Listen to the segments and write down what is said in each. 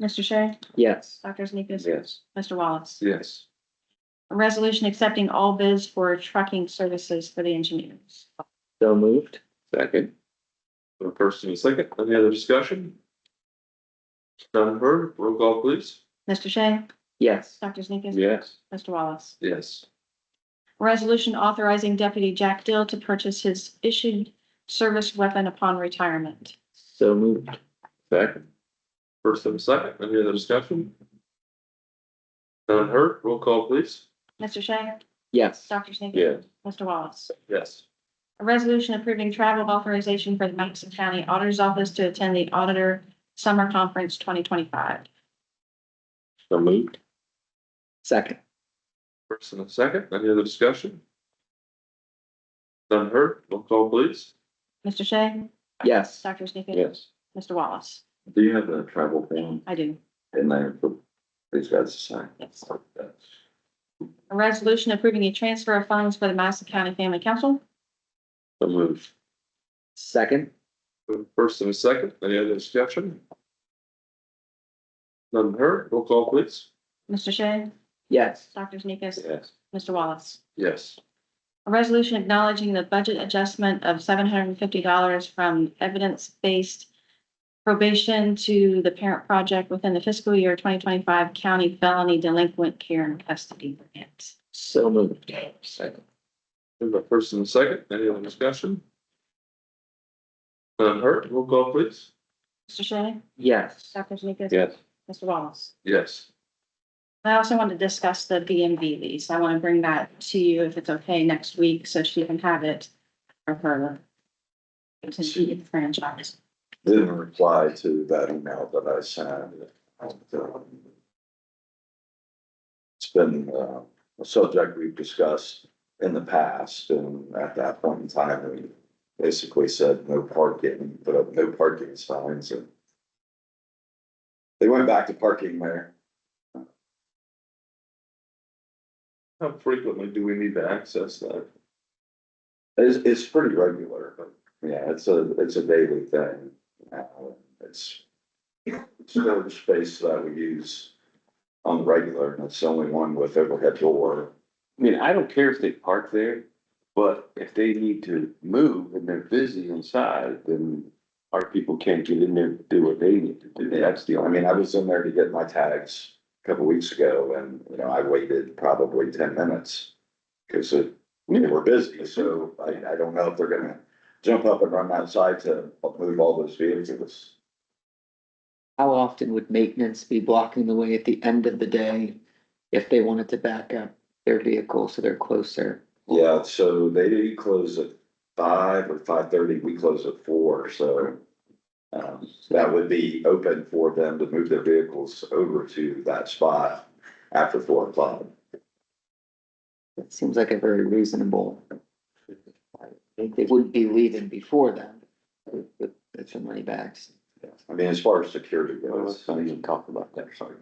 Mr. Shea, Yes. Dr. Sneakus, Yes. Mr. Wallace. Yes. A resolution accepting all bids for trucking services for the engineers. So moved. Second. The first and a second, any other discussion? None heard, roll call please. Mr. Shea, Yes. Dr. Sneakus, Yes. Mr. Wallace. Yes. A Resolution authorizing Deputy Jack Dill to purchase his issued service weapon upon retirement. So moved. Second. First and a second, any other discussion? None heard, roll call please. Mr. Shea, Yes. Dr. Sneakus. Yes. Mr. Wallace. Yes. A resolution approving travel authorization for the Madison County Auditor's Office to attend the Auditor Summer Conference twenty twenty-five. So moved. Second. First and a second, any other discussion? None heard, roll call please. Mr. Shea, Yes. Dr. Sneakus. Yes. Mr. Wallace. Do you have a travel plan I do. in there for these guys to sign? Yes. A resolution approving a transfer of funds for the Madison County Family Council. So moved. Second. First and a second, any other discussion? None heard, roll call please. Mr. Shea, Yes. Dr. Sneakus, Yes. Mr. Wallace. Yes. A resolution acknowledging the budget adjustment of seven hundred and fifty dollars from evidence-based probation to the parent project within the fiscal year twenty twenty-five county felony delinquent care and custody grant. So moved. Second. We have a first and a second, any other discussion? None heard, roll call please. Mr. Shea, Yes. Dr. Sneakus. Yes. Mr. Wallace. Yes. I also want to discuss the BMV lease. I want to bring that to you if it's okay next week, so she can have it for her to be in franchise. didn't reply to that email that I sent. um, It's been uh, a subject we've discussed in the past, and at that point in time, we basically said no parking, put up no parking signs, and they went back to parking there. How frequently do we need to access that? It's, it's pretty regular, but yeah, it's a, it's a daily thing. Uh, It's storage space that we use on the regular, and it's the only one with overhead door. I mean, I don't care if they park there, but if they need to move and they're busy inside, then our people can't get in there to do what they need to do. That's the I only, mean, I was in there to get my tags a couple weeks ago and, you know, I waited probably ten minutes. Cause it, we were busy, so I, I don't know if they're gonna jump up and run outside to move all those vehicles. How often would maintenance be blocking the way at the end of the day if they wanted to back up their vehicle so they're closer? Yeah, so they close at five or five thirty, we close at four, so. Um, that would be open for them to move their vehicles over to that spot after four o'clock. That seems like a very reasonable. I think they wouldn't be leaving before then. with- with- With some money bags. I mean, as far as security Well, let's goes. not even talk about that, sorry.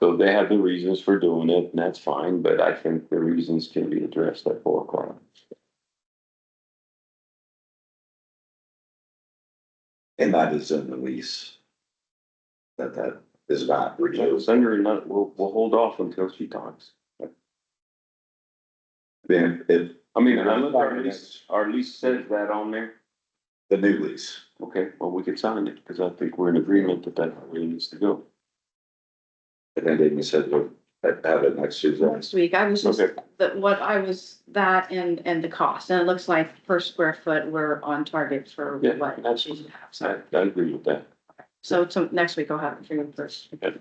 So they have the reasons for doing it and that's fine, but I think the reasons can be addressed at four o'clock. And that is in the lease. That that is not So renewed. Sunday night, we'll, we'll hold off until she talks. Then if I mean, I look, our lease, our lease says that on there. the new lease, Okay, well, we could sign it because I think we're in agreement that that's where it needs to go. I think they said we'll have it next Tuesday. Next week, I was just, Okay. that what I was, that and, and the cost, and it looks like per square foot, we're on target for Yeah, what she should have, I, so. I agree with that. So, to next week I'll have it for you first. That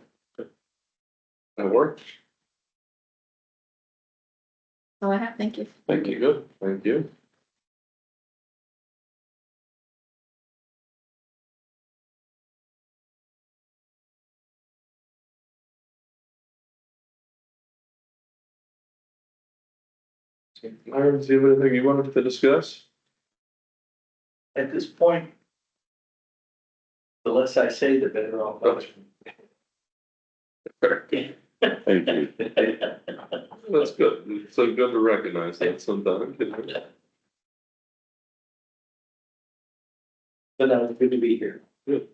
work? So I have, thank you. Thank you. Good, thank you. Myron, do you have anything you wanted to discuss? at this point, the less I say, the better off. Thank you. That's good. It's so good to recognize that sometimes. you know. But I'm good to be here. Good.